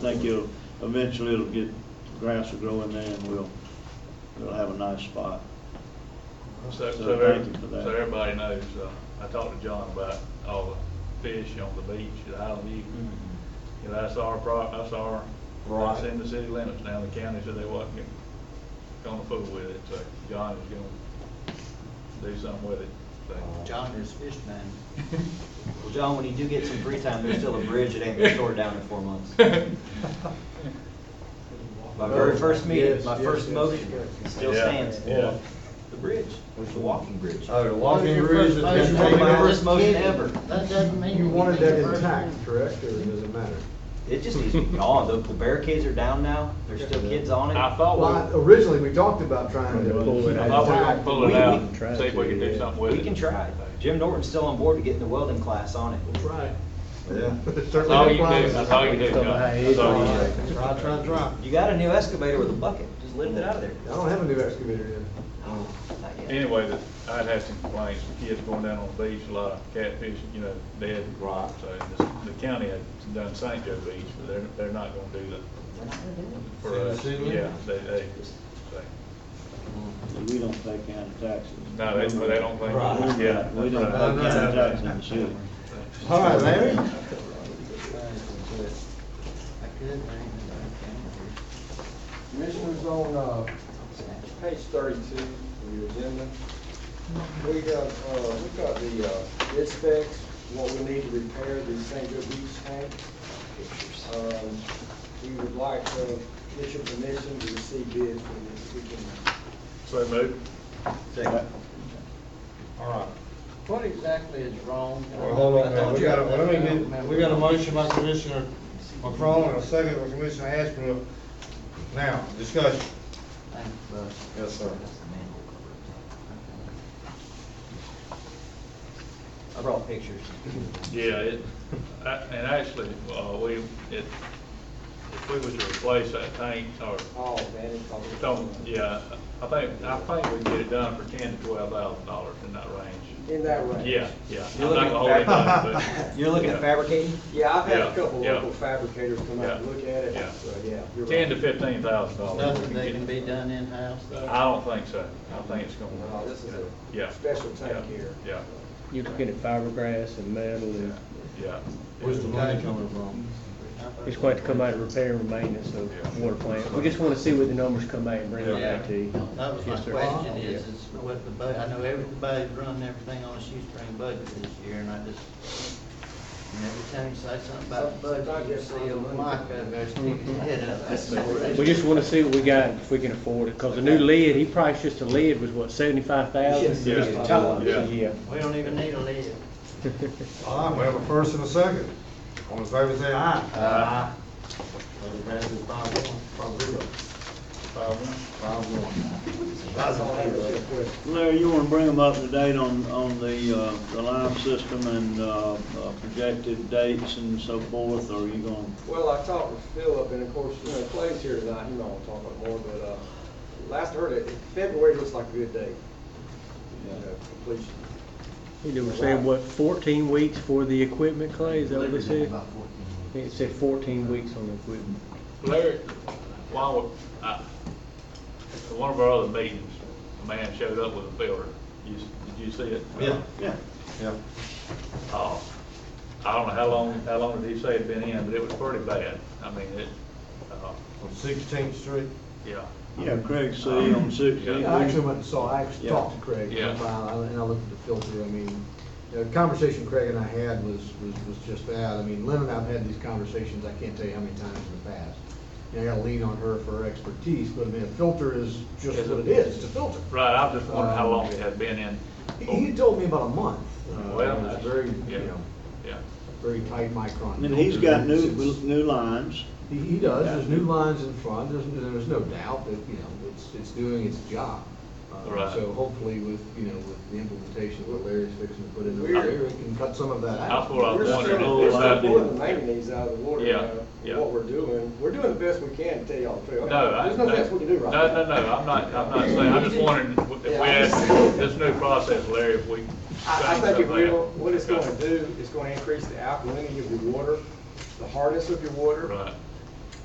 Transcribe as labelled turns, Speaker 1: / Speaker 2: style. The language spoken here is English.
Speaker 1: think you'll, eventually it'll get, grass will grow in there and we'll, we'll have a nice spot.
Speaker 2: So,
Speaker 1: So
Speaker 2: so,
Speaker 1: thank you for
Speaker 2: every-
Speaker 1: that.
Speaker 2: so everybody knows, uh, I talked to John about all the fish on the beach at Island View.
Speaker 1: Mm-hmm.
Speaker 2: You know, that's our pro, that's our, that's
Speaker 3: Right.
Speaker 2: in the city limits now, the county said they wasn't gonna- gonna fool with it, so John is gonna do something with it, so.
Speaker 4: John is fish man.
Speaker 3: Well, John, when you do get some free time, there's still a bridge that ain't been tore down in four months. My very first meeting, my
Speaker 5: Yes,
Speaker 3: first
Speaker 5: yes,
Speaker 3: motion,
Speaker 5: yes, yes.
Speaker 3: still
Speaker 2: Yeah,
Speaker 3: stands.
Speaker 2: yeah.
Speaker 3: The bridge, was the walking bridge.
Speaker 5: Oh, the walking bridge
Speaker 3: That was
Speaker 5: has
Speaker 3: my
Speaker 5: been taken out.
Speaker 3: first motion ever.
Speaker 4: That doesn't mean.
Speaker 5: You wanted
Speaker 4: anything
Speaker 5: that
Speaker 4: to first
Speaker 5: intact,
Speaker 4: one.
Speaker 5: correct, or does it matter?
Speaker 3: It just needs to be gone. The the barricades are down now. There's still kids on it.
Speaker 2: I thought
Speaker 5: Well, I-
Speaker 2: we,
Speaker 5: originally, we talked about trying to
Speaker 1: Pull
Speaker 5: keep
Speaker 1: it
Speaker 5: it
Speaker 2: I
Speaker 1: out.
Speaker 2: thought we were gonna
Speaker 5: intact.
Speaker 2: pull it
Speaker 3: We-
Speaker 2: out,
Speaker 1: we can
Speaker 2: see if we can do something with it.
Speaker 3: We can try. it. Jim Norton's still on board to get in the welding class on it.
Speaker 2: Right.
Speaker 5: Yeah. Certainly
Speaker 2: That's all
Speaker 5: no
Speaker 2: you can do,
Speaker 5: promises.
Speaker 2: that's all you can do, John. That's all you can do.
Speaker 4: Try, try, try.
Speaker 3: You got a new excavator with a bucket. Just lift it out of there.
Speaker 5: I don't have a new excavator yet.
Speaker 3: Oh, not yet.
Speaker 2: Anyway, that, I'd had some complaints, from kids going down on the beach, a lot of catfish, you know, dead.
Speaker 3: Right.
Speaker 2: So this- the county had done St. Joe Beach, but they're, they're not gonna do that
Speaker 3: We're not gonna do it.
Speaker 2: for
Speaker 5: In the
Speaker 2: us.
Speaker 5: city?
Speaker 2: Yeah, they, they, they-
Speaker 1: We don't pay county taxes.
Speaker 2: no, they, but they don't think.
Speaker 3: Right.
Speaker 2: Yeah.
Speaker 1: We don't
Speaker 2: that's
Speaker 1: pay
Speaker 2: right.
Speaker 5: No, no,
Speaker 1: county
Speaker 5: no.
Speaker 1: taxes in the city.
Speaker 5: All right, Larry?
Speaker 4: I could, but I ain't gonna
Speaker 6: Commissioners, on, uh,
Speaker 4: do it.
Speaker 6: page thirty-two of your agenda, we got, uh, we got the, uh, bid specs, what we need to repair the St. Joe Beach tank. Um, we would like, uh, get your permission to receive bids for this, we can,
Speaker 2: So move.
Speaker 1: Second.
Speaker 5: All right.
Speaker 4: What exactly is wrong?
Speaker 5: Well, hold on,
Speaker 4: I
Speaker 5: man,
Speaker 4: thought
Speaker 5: we
Speaker 4: you-
Speaker 5: got a, let me get, we got a motion by Commissioner McCrone and a second by Commissioner Ashbrook. Now, discussion.
Speaker 4: Thank you, bud.
Speaker 5: Yes, sir.
Speaker 4: That's the manhole cover.
Speaker 3: I brought pictures.
Speaker 2: Yeah, it, I- and actually, uh, we, it, if we was to replace that tank or
Speaker 6: all manage. all the-
Speaker 2: don't, yeah, I think, I think we can get it done for ten to twelve thousand dollars in that range.
Speaker 6: In that range.
Speaker 2: Yeah, yeah.
Speaker 3: You're
Speaker 2: I'm not
Speaker 3: looking
Speaker 2: gonna hold
Speaker 3: at
Speaker 2: anybody,
Speaker 3: fab-
Speaker 2: but-
Speaker 3: You're looking at
Speaker 2: Yeah.
Speaker 3: fabricating?
Speaker 6: Yeah, I've had
Speaker 2: Yeah,
Speaker 6: a couple
Speaker 2: yeah.
Speaker 6: local fabricators come out and
Speaker 2: Yeah,
Speaker 6: look at it,
Speaker 2: yeah.
Speaker 6: so, yeah. you're
Speaker 2: Ten to
Speaker 6: right.
Speaker 2: fifteen thousand dollars.
Speaker 4: Nothing that can be done in-house?
Speaker 2: I don't think so. I think it's gonna.
Speaker 6: No, Oh, this is
Speaker 2: Yeah.
Speaker 6: a special tank
Speaker 2: Yeah.
Speaker 6: here.
Speaker 2: Yeah,
Speaker 7: You're looking at fiberglass and metal, and
Speaker 2: yeah.
Speaker 5: Where's the money coming from?
Speaker 7: it's going to come out of repair and maintenance of water plant. We just want to see what the numbers come out and bring it back to you.
Speaker 4: That was my
Speaker 7: Yes, sir.
Speaker 4: question is,
Speaker 7: Yeah.
Speaker 4: is what the budget, I know everybody's running everything on a shoestring budget this year, and I just, and every time you say something about the budget, you see a mic up there sticking his head up. That's the worst.
Speaker 7: We just want to see what we got, if we can afford it, because the new lid, he priced just a lid was what, seventy-five thousand?
Speaker 6: Yes, yes.
Speaker 2: Yeah.
Speaker 7: Yeah.
Speaker 4: We don't even need a lid.
Speaker 5: All right, we have a first and a second. All in favor, say aye.
Speaker 2: Aye.
Speaker 5: Motion passes five one, five zero, five one.
Speaker 6: That's all I have to say, quick.
Speaker 1: Larry, you wanna bring them up to date on, on the, uh, the line system and, uh, uh, projected dates and so forth, or are you gonna?
Speaker 6: Well, I talked with Philip, and of course, you know, Clay's here tonight, he might want to talk about more, but, uh, last I heard it, February looks like a good date, you know, completion.
Speaker 7: They were saying, what, fourteen weeks for the equipment, Clay, is that what they said?
Speaker 4: About 14.
Speaker 7: I think it said fourteen weeks on the equipment.
Speaker 2: Larry, while, we- I, at one of our other meetings, a man showed up with a filter. You, s- did you see it?
Speaker 5: Yeah.
Speaker 1: Yeah.
Speaker 5: Yeah.
Speaker 2: Uh, I don't know how long, how long did he say it'd been in, but it was pretty bad. I mean, it, uh,
Speaker 5: On Sixteenth Street.
Speaker 2: yeah.
Speaker 1: Yeah, Craig C. on Sixteenth.
Speaker 5: Yeah, I actually went and saw, I actually
Speaker 1: Yeah.
Speaker 5: talked to Craig,
Speaker 2: Yeah.
Speaker 5: and I and I looked at the filter, I mean, the conversation Craig and I had was, was, was just that, I mean, Lynn and I've had these conversations, I can't tell you how many times in the past. You know, I gotta lean on her for her expertise, but I mean, a filter is just
Speaker 2: Is
Speaker 5: what
Speaker 2: it-
Speaker 5: it is, it's a filter.
Speaker 2: Right, I was just wondering how
Speaker 5: Um,
Speaker 2: long it had been in.
Speaker 5: He, he told me about a month, uh,
Speaker 2: Well,
Speaker 5: it was
Speaker 2: that's-
Speaker 5: very,
Speaker 2: yeah.
Speaker 5: you know,
Speaker 2: Yeah.
Speaker 5: very tight micron.
Speaker 1: And he's got new,
Speaker 5: filter. It's-
Speaker 1: new lines.
Speaker 5: He, he does, there's new lines in front, there's, there's no doubt that, you know, it's, it's doing its job. Uh,
Speaker 2: Right.
Speaker 5: So hopefully with, you know, with the implementation of what Larry's fixing to put in
Speaker 6: We're-
Speaker 5: there, it can cut some of that out.
Speaker 2: That's what I was
Speaker 6: We're
Speaker 2: wondering.
Speaker 1: still-
Speaker 2: if
Speaker 6: still-
Speaker 2: this had been-
Speaker 6: We're
Speaker 1: doing
Speaker 6: pulling the manganese out of the water
Speaker 2: Yeah,
Speaker 6: now,
Speaker 2: yeah.
Speaker 6: what we're doing, we're doing the best we can to tell y'all the truth.
Speaker 2: No, I.
Speaker 6: There's nothing else we can do right now.
Speaker 2: No, no, no, I'm not, I'm not saying, I'm just wondering if we
Speaker 6: Yeah, I
Speaker 2: had
Speaker 6: just-
Speaker 2: this new process, Larry, if we.
Speaker 6: I, I
Speaker 2: changed
Speaker 6: think if we,
Speaker 2: something.
Speaker 6: don't- what it's gonna do, it's gonna increase the alkalinity of your water, the hardness of your water.
Speaker 2: Right.